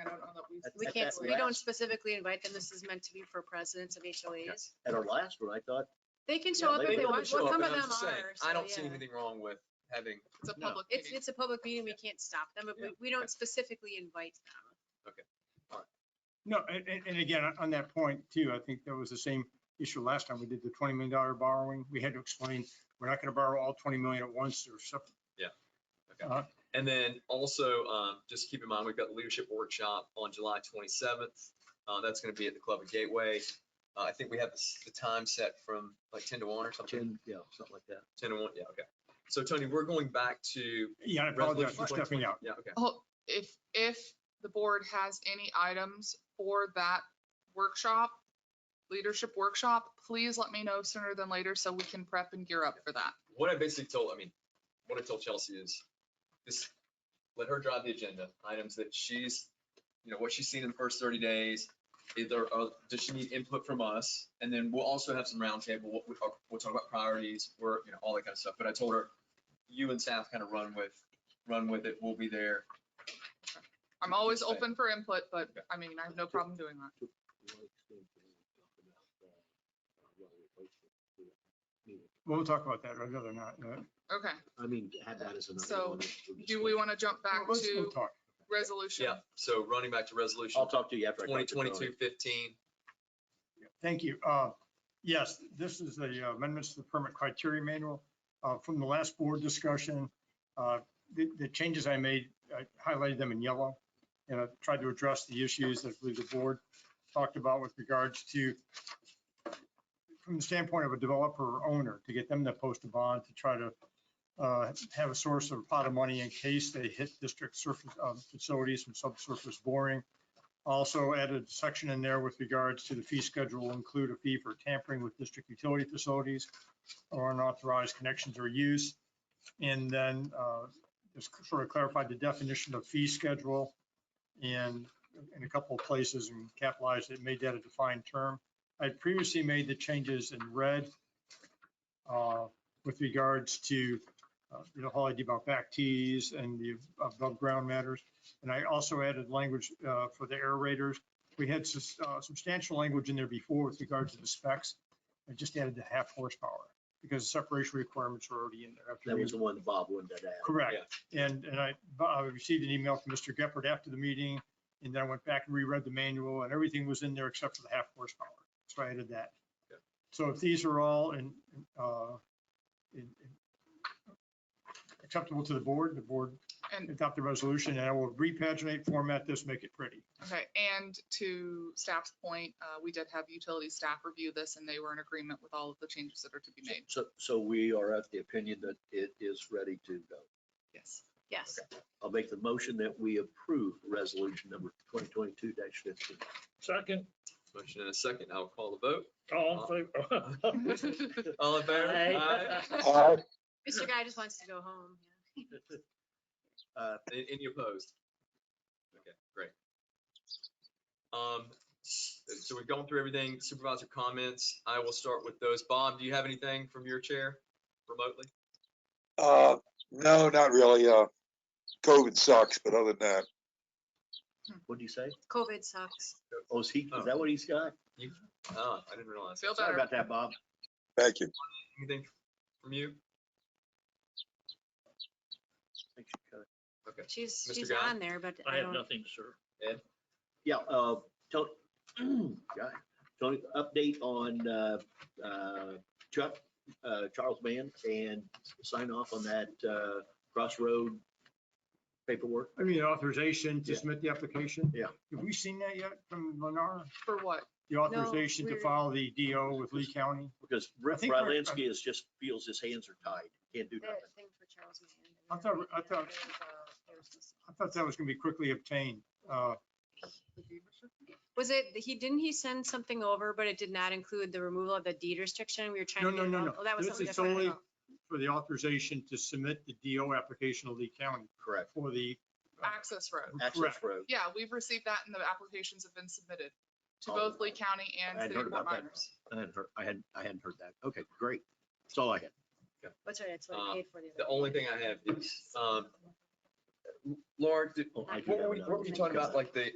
I don't know that we. We at can't, that we don't last- specifically invite them. This is meant to be for presidents of HOAs. At our last one, I thought, They can Yeah, show up they if can they come want. and Well, show up, some But of I'm them just saying, are. so, I don't see yeah. anything wrong with having, It's a No. public It's, meeting. it's a public meeting. We can't stop them, but Yeah. we, we don't specifically invite them. No, and, and- and again, on that point too, I think that was the same issue last time we did the twenty million dollar borrowing. We had to explain, we're not gonna borrow all twenty million at once or something. okay. Uh-huh. And then also, um, just keep in mind, we've got leadership workshop on July twenty-seventh. Uh, that's gonna be at the Club of Gateway. Uh, I think we have the s- the time set from like ten to one or something, ten, yeah, something like that. ten to one, yeah, okay. So Tony, we're going back to, Yeah, I apologize Resolution for stepping out. yeah, okay. Oh, If, if the board has any items for that workshop, leadership workshop, please let me know sooner than later so we can prep and gear up for that. What I basically told, I mean, what I told Chelsea is, this, let her drive the agenda, items that she's, you know, what she's seen in the first thirty days. Either, uh, does she need input from us? And then we'll also have some roundtable, we'll, we'll talk about priorities, work, you know, all that kind of stuff. But I told her, you and staff kind of run with, run with it, we'll be there. I'm always open for input, but I mean, I have no problem doing that. We'll talk about that, I'd rather not. uh, Okay, I mean, have that as another So, one. do we want to jump back let's- we'll to talk. resolution? Yeah, so running back to resolution I'll talk to you after. I talk twenty to Tony. twenty-two fifteen, Thank you. Uh, Yes, this is the amendments to the permit criteria manual. Uh, From the last board discussion, uh, the the changes I made, I highlighted them in yellow. And I tried to address the issues that I believe the board talked about with regards to, from the standpoint of a developer or owner, to get them to post a bond, to try to uh, have a source of pot of money in case they hit district surface uh, facilities and subsurface boring. Also added section in there with regards to the fee schedule, will include a fee for tampering with district utility facilities or unauthorized connections or use. And then uh, just sort of clarified the definition of fee schedule and in a couple of places and capitalized it, made that a defined term. I previously made the changes in red uh, with regards to, uh, you know, whole idea about back tees and the above ground matters. And I also added language uh, for the aerators. We had sus- uh, substantial language in there before with regards to the specs. I just added the half horsepower because the separation requirements are already in there. after That we- was the one Bob wanted to add. Correct. And, and I, but I received an email from Mr. Geppert after the meeting, and then I went back and reread the manual, and everything was in there except for the half horsepower. So I added that. Yeah. So if these are all in, uh, in, in- acceptable to the board, the board And- adopt the resolution, and I will repaginate, format this, make it pretty. Okay, and to staff's point, uh, we did have utility staff review this and they were in agreement with all of the changes that are to be made. So, so we are of the opinion that it is ready to go. Yes. Yes. I'll make the motion that we approve resolution number twenty twenty-two fifteen. Second, motion in a second, I'll call the vote. all in Uh, favor. All in favor? Aye. Aye. Uh, Mr. Guy just wants to go home. Uh, a- Any opposed? Okay, great. Um, s- So we've gone through everything, supervisor comments. I will start with those. Bob, do you have anything from your chair remotely? Uh, no, not really. Uh, COVID sucks, but other than that, What'd you say? COVID sucks. Oh, is he, is that what he's got? Oh, I didn't realize. Feel Sorry better. about that, Bob. thank you. Anything from you? Thanks for coming. She's, Mr. she's Guy? on there, but I I have don't, nothing, sir. Yeah, uh, Tony, God, Tony, update on, uh, uh, Chuck, uh, Charles Mann and sign off on that, uh, crossroad paperwork. I mean, authorization to Yeah. submit the application. Yeah. Have we seen that yet from Lennar? For what? The authorization to we're- file the DO with Lee County? Because Rick think um, our- Rylansky is just feels his hands are tied, can't do nothing. that thing for Charles Mann. I thought- I thought- I thought that was gonna be quickly obtained. Uh, Was it, he, didn't he send something over, but it did not include the removal of the deed restriction? We were trying No, to. no, get no, it no. out- Oh, that was This something is different. only- for the authorization to submit the DO application to Lee County Correct. for the, Access road. Access correct. road. Yeah, we've received that and the applications have been submitted to Oh. both Lee County and I City of hadn't heard Fort about that. Myers. I hadn't heard, I hadn't, I hadn't heard that. Okay, great. That's all I had. That's right, that's what Uh, I paid for. other The day. only thing I have is, um, Laura, did- Oh, I do what have were we- another what were you one. talking Go about, ahead. like the